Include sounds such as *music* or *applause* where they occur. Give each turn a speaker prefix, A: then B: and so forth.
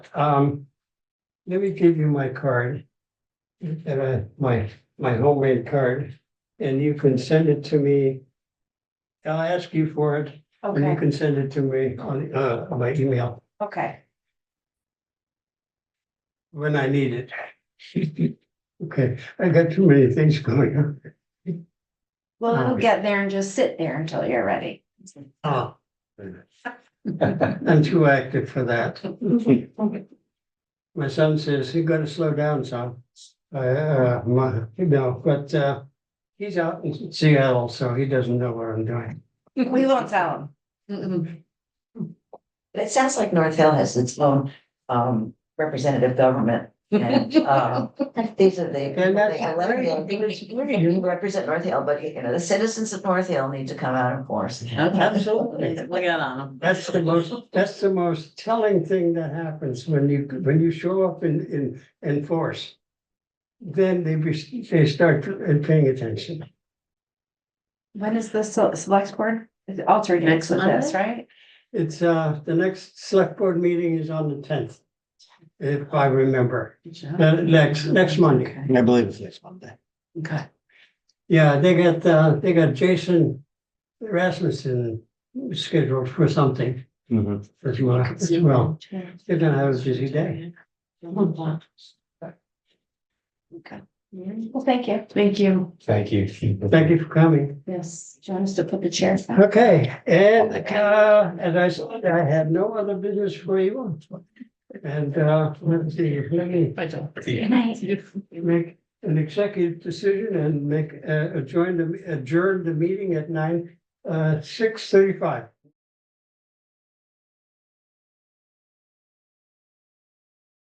A: Um, let me give you my card. And I, my, my homemade card, and you can send it to me. I'll ask you for it, or you
B: Okay,
A: can send it to me on, uh, on my email
B: okay,
A: when I need it. *laughs* Okay, I got too many things going on.
B: well, it'll
A: Okay.
B: get there and just sit there until you're ready.
A: Oh. I'm too active for that. My son says, you gotta slow down, son. I, Uh, my, you know, but, uh, he's out in Seattle, so he doesn't know what I'm doing.
B: We won't tell them.
C: But it sounds like North Hill has its own um representative government
A: *laughs*
C: and um these are the.
A: And that's
C: I love
A: very-
C: it. You represent North Hill, but you know, the citizens of North Hill need to come out and force. *laughs*
A: Absolutely.
D: Look out on them.
A: That's the most, that's the most telling thing that happens when you, when you show up in, in, in force. Then they, be- they start uh, paying attention.
B: When is the se- select board? It's
D: Next
B: alternates with this,
D: Monday?
B: right?
A: It's, uh, the next select board meeting is on the tenth. If I remember,
D: Good job.
A: Uh, next, next Monday.
D: Okay.
E: I believe it's next Monday.
D: Okay.
A: Yeah, they got, uh, they got Jason Rasmussen scheduled for something
E: Mm-hmm.
A: as well, as well. They're gonna have a busy day.
B: Well, thank you.
D: Thank you.
E: Thank you.
A: Thank you for coming.
B: Yes, do you want us to put the chairs back?
A: Okay, and, uh, as I said, I had no other business for you. And, uh, let's see, let me
D: Bye, Jill.
B: Good night.
A: make an executive decision and make, uh, adjourn the, adjourn the meeting at nine, uh, six thirty-five.